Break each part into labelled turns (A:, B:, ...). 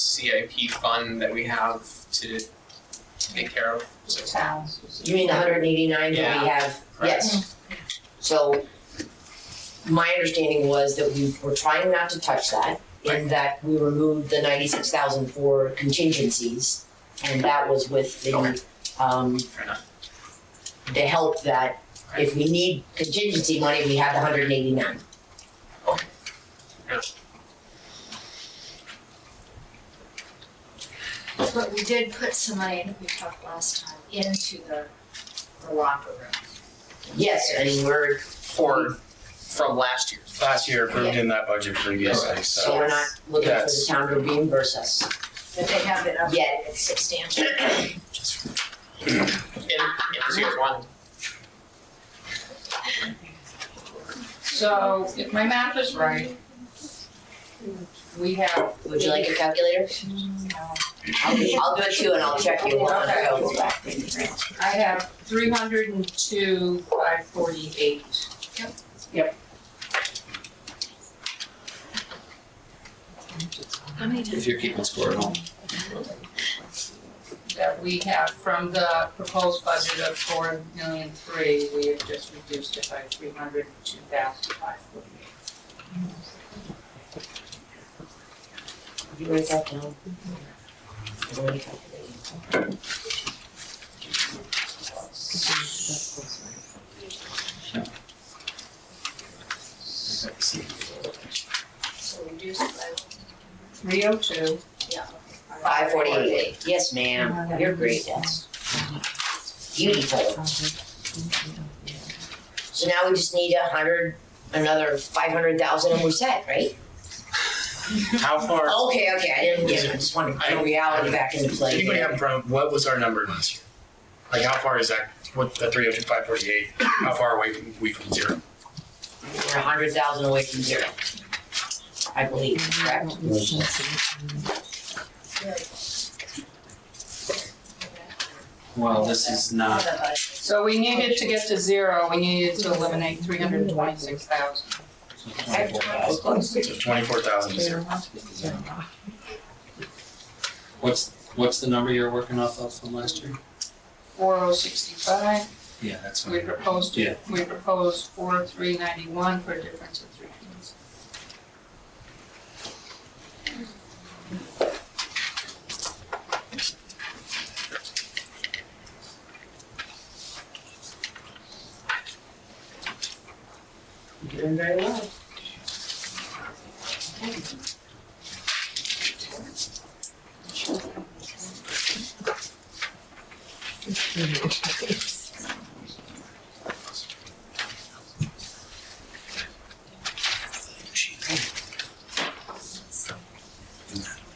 A: CIP fund that we have to take care of, so.
B: You mean the hundred and eighty-nine that we have?
A: correct.
B: Yes. So my understanding was that we were trying not to touch that, in that we removed the ninety-six thousand for contingencies. And that was with
A: Okay.
B: the, um,
A: Fair enough.
B: the help that if we need contingency money, we have the hundred and eighty-nine.
C: But we did put some money, I think we talked last time, into the, the locker room.
B: Yes, and we're,
A: For, from last year.
D: Last year approved in that budget previously,
B: so
D: so.
B: we're not looking for the
D: Yes.
B: town to reimburse us.
C: But they have been
B: Yeah.
C: updated substantially.
A: And, and as you guys want,
E: So if my math is right, we have.
B: Would you like a calculator?
C: Mm-hmm.
B: I'll, I'll do it too and I'll check you on the go.
E: I have three hundred and two, five forty-eight.
C: Yep.
E: Yep.
C: How many times?
D: you're keeping score at home.
E: That we have from the proposed budget of four million three, we have just reduced it by three hundred and two thousand five forty-eight.
B: You write that down. Is there any calculator?
C: So reduced by,
E: Three oh two,
C: yeah.
B: Five forty-eight, yes ma'am, you're great, yes. Beautiful. So now we just need a hundred, another five hundred thousand and we're set, right?
D: How far,
B: Okay, okay, I didn't, yeah, I just wanted to bring reality back into
D: does
B: play.
D: anybody have a problem, what was our number last year? Like how far is that, what, the three oh two, five forty-eight, how far away from, we from zero?
B: We're a hundred thousand away from zero. I believe, correct?
F: Well, this is not,
E: so we needed to get to zero, we needed to eliminate three hundred and twenty-six thousand.
D: So twenty-four thousand to zero.
F: what's, what's the number you're working off of from last year?
E: Four oh sixty-five,
F: Yeah, that's
E: we
F: what I
E: proposed,
F: Yeah.
E: we proposed four three ninety-one for a difference of three hundred.
B: Doing very well.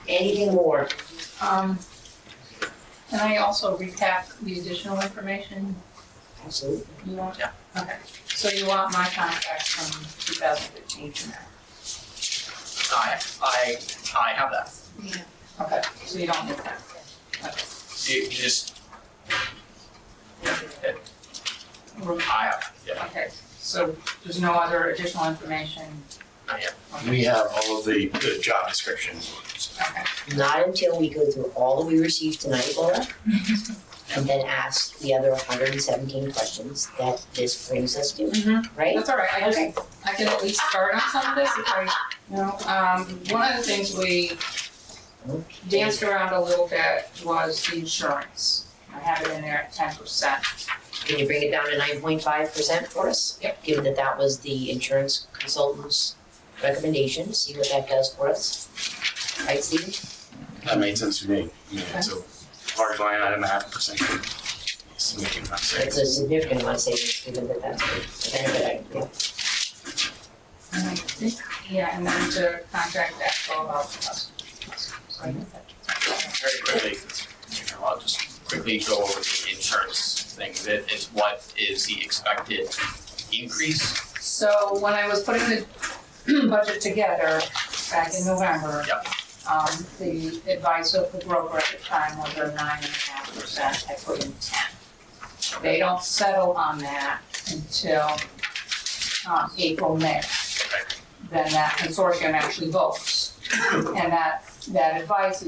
B: Anything more?
E: Um, can I also recap the additional information
B: Absolutely.
E: you want?
A: Yeah.
E: Okay, so you want my contract from two thousand fifteen to now?
A: I, I, I have that.
E: Okay, so you don't need that?
A: You you just. Yeah, it- I have, yeah,
E: Okay, so there's no other additional information?
A: Not yet.
D: We have all of the, the job descriptions.
E: Okay,
B: Not until we go through all that we received tonight, Laura, and then ask the other hundred and seventeen questions that this brings us to,
E: Mhm.
B: right?
E: that's all right, I
B: Okay.
E: just, I can at least start on some of this if I, you know, um, one of the things we danced around a little bit was the insurance. I have it in there at ten percent.
B: Can you bring it down to nine point five percent for us?
E: Yep.
B: Given that that was the insurance consultant's recommendation, see what that does for us. Right, Steve?
D: That made sense to me. You know, It's a large line item, a half a percent. Significant amount
B: It's
D: of savings.
B: a significant amount of savings, given that that's the benefit, I- yeah.
E: And I think, yeah, and then to contact Expo about the customers. So I think that-
A: very quickly, I'll just quickly go over the insurance thing, that is what is the expected increase?
E: So when I was putting the budget together back in November,
A: Yep.
E: um, the advice of the broker at the time was a nine and a half percent, I put in ten. They don't settle on that until, um, April, May. Then that consortium actually votes. And that that advice